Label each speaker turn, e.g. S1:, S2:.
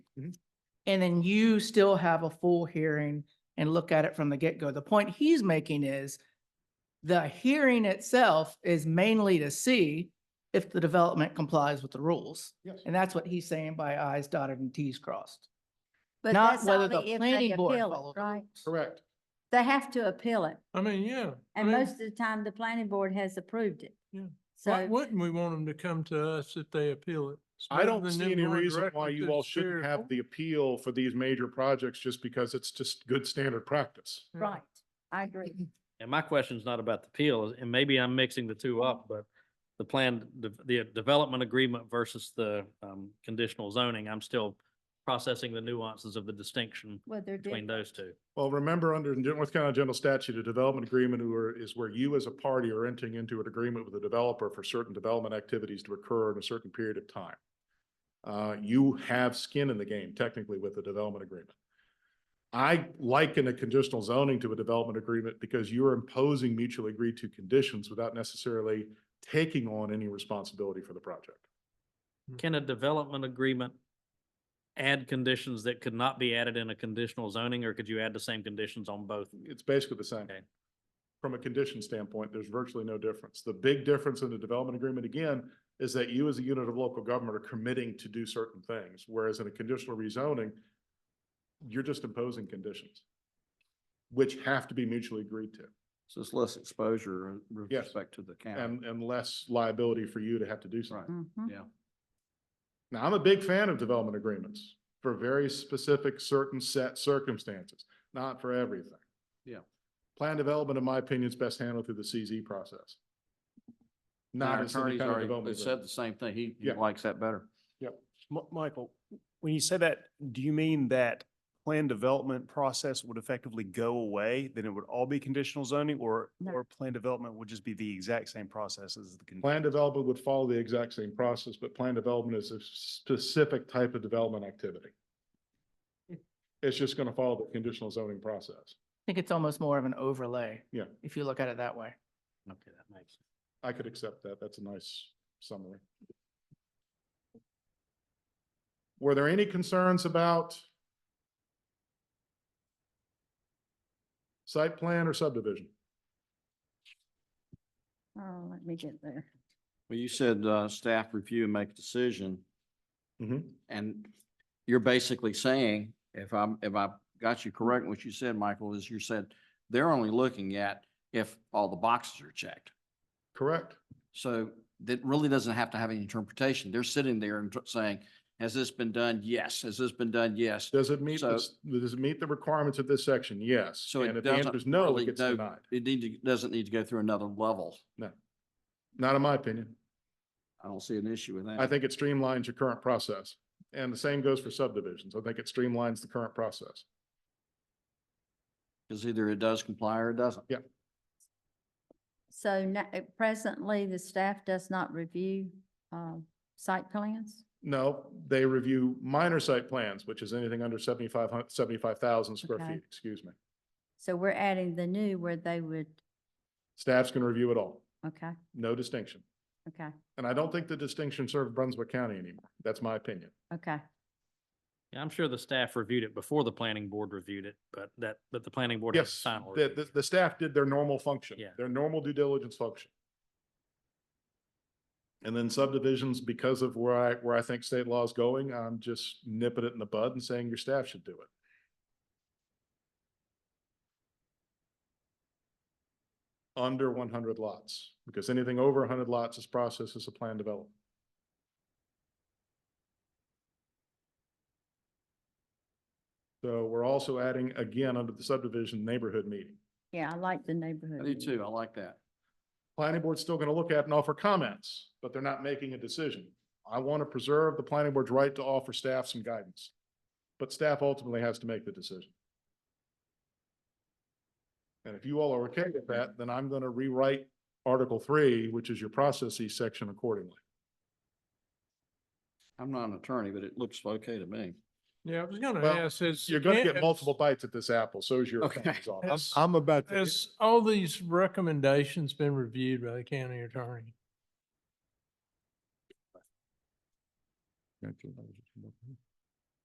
S1: Mhm.
S2: And then you still have a full hearing and look at it from the get-go. The point he's making is the hearing itself is mainly to see if the development complies with the rules.
S1: Yes.
S2: And that's what he's saying by I's dotted and T's crossed.
S3: But
S2: Not
S3: that's
S2: whether
S3: only
S2: the
S3: if they
S2: planning board
S3: appeal it,
S2: follows the
S3: Right,
S1: Correct.
S3: they have to appeal it,
S4: I mean, yeah. I
S3: and
S4: mean,
S3: most of the time, the planning board has approved it.
S4: Yeah. Why
S3: So,
S4: wouldn't we want them to come to us if they appeal it? It's
S1: I
S4: better
S1: don't
S4: than
S1: see
S4: them
S1: any
S4: going
S1: reason why
S4: directly to
S1: you
S4: the
S1: all shouldn't
S4: Superior
S1: have
S4: Court.
S1: the appeal for these major projects just because it's just good standard practice.
S4: Yeah.
S3: right, I agree.
S5: And my question's not about the appeal, and maybe I'm mixing the two up, but the plan, the, the development agreement versus the, um, conditional zoning, I'm still processing the nuances of the distinction
S3: Well, they're
S5: between
S3: different.
S5: those two.
S1: Well, remember under the North Carolina General Statute, a development agreement or- is where you as a party are entering into an agreement with a developer for certain development activities to occur in a certain period of time. Uh, you have skin in the game technically with the development agreement. I liken a conditional zoning to a development agreement because you're imposing mutually agreed to conditions without necessarily taking on any responsibility for the project.
S5: Can a development agreement add conditions that could not be added in a conditional zoning, or could you add the same conditions on both?
S1: It's basically the same.
S5: Okay.
S1: From a condition standpoint, there's virtually no difference. The big difference in the development agreement again is that you as a unit of local government are committing to do certain things, whereas in a conditional rezoning, you're just imposing conditions, which have to be mutually agreed to
S6: So it's less exposure with
S1: Yes.
S6: respect to the county.
S1: and, and less liability for you to have to do something.
S6: Right.
S3: Mhm.
S1: Now, I'm a big fan of development agreements for very specific, certain set circumstances, not for everything.
S6: Yeah.
S1: Plan development, in my opinion, is best handled through the CZ process.
S6: And
S1: Not
S6: Our
S1: as any
S6: attorney's
S1: kind of
S6: already
S1: development.
S6: said
S1: agreement.
S6: the same thing. He, he
S1: Yeah.
S6: likes that better.
S7: Mi- Michael, when you say that, do you mean that plan development process would effectively go away? Then it would all be conditional zoning or,
S3: No.
S7: or plan development would just be the exact same process as the? con-
S1: Plan development would follow the exact same process, but plan development is a specific type of development activity. It's just going to follow the conditional zoning process.
S2: I think it's almost more of an overlay.
S1: Yeah.
S2: If you look at it that way.
S5: Okay, that makes.
S1: I could accept that. That's a nice summary. Were there any concerns about site plan or subdivision?
S3: Oh, let me get there.
S6: Well, you said, uh, staff review and make decision. Mm-hmm.
S1: Mhm.
S6: And you're basically saying, if I'm, if I got you correct, what you said, Michael, is you said they're only looking at if all the boxes are checked.
S1: Correct.
S6: So that really doesn't have to have any interpretation. They're sitting there and tr- saying, has this been done? Yes. Has this been done? Yes.
S1: Does it meet,
S6: So-
S1: this- does it meet the requirements of this section? Yes.
S6: So
S1: And
S6: it
S1: if the answer is
S6: doesn't
S1: no,
S6: really
S1: it gets
S6: go,
S1: denied.
S6: it need to, doesn't need to go through another level.
S1: Not in my opinion.
S6: I don't see an issue with that.
S1: I think it streamlines your current process. And the same goes for subdivisions. I think it streamlines the current process.
S6: Because either it does comply or it doesn't.
S3: So na- uh, presently, the staff does not review, um, site plans?
S1: No, they review minor site plans, which is anything under 75 square
S3: Okay.
S1: feet, excuse me.
S3: So we're adding the new where they would,
S1: Staff's can review it all,
S3: okay,
S1: no distinction.
S3: okay,
S1: And I don't think the distinction served Brunswick County anymore. That's my opinion.
S3: okay.
S5: Yeah, I'm sure the staff reviewed it before the planning board reviewed it, but that, but the planning board. has
S1: Yes,
S5: final
S1: the,
S5: review.
S1: the, the staff did their normal function.
S5: Yeah.
S1: Their normal due diligence function. And then subdivisions, because of where I, where I think state law is going, I'm just nipping it in the bud and saying your staff should do it. Under one hundred lots, because anything over hundred lots is processed as a plan development. So we're also adding, again, under the subdivision neighborhood meeting.
S3: Yeah, I like the neighborhood.
S6: I do
S3: view.
S6: too. I like that.
S1: Planning board's still gonna look at and offer comments, but they're not making a decision. I want to preserve the planning board's right to offer staff some guidance. But staff ultimately has to make the decision. And if you all are okay with that, then I'm gonna rewrite Article Three, which is your processes section accordingly.
S6: I'm not an attorney, but it looks okay to me.
S4: Yeah, I was gonna
S1: Well,
S4: ask, is.
S1: You're gonna
S4: can-
S1: get multiple bites at this apple, so is your
S6: Okay.
S1: attorney's office.
S4: Has-
S1: I'm about
S4: Has all these recommendations been reviewed by the county attorney?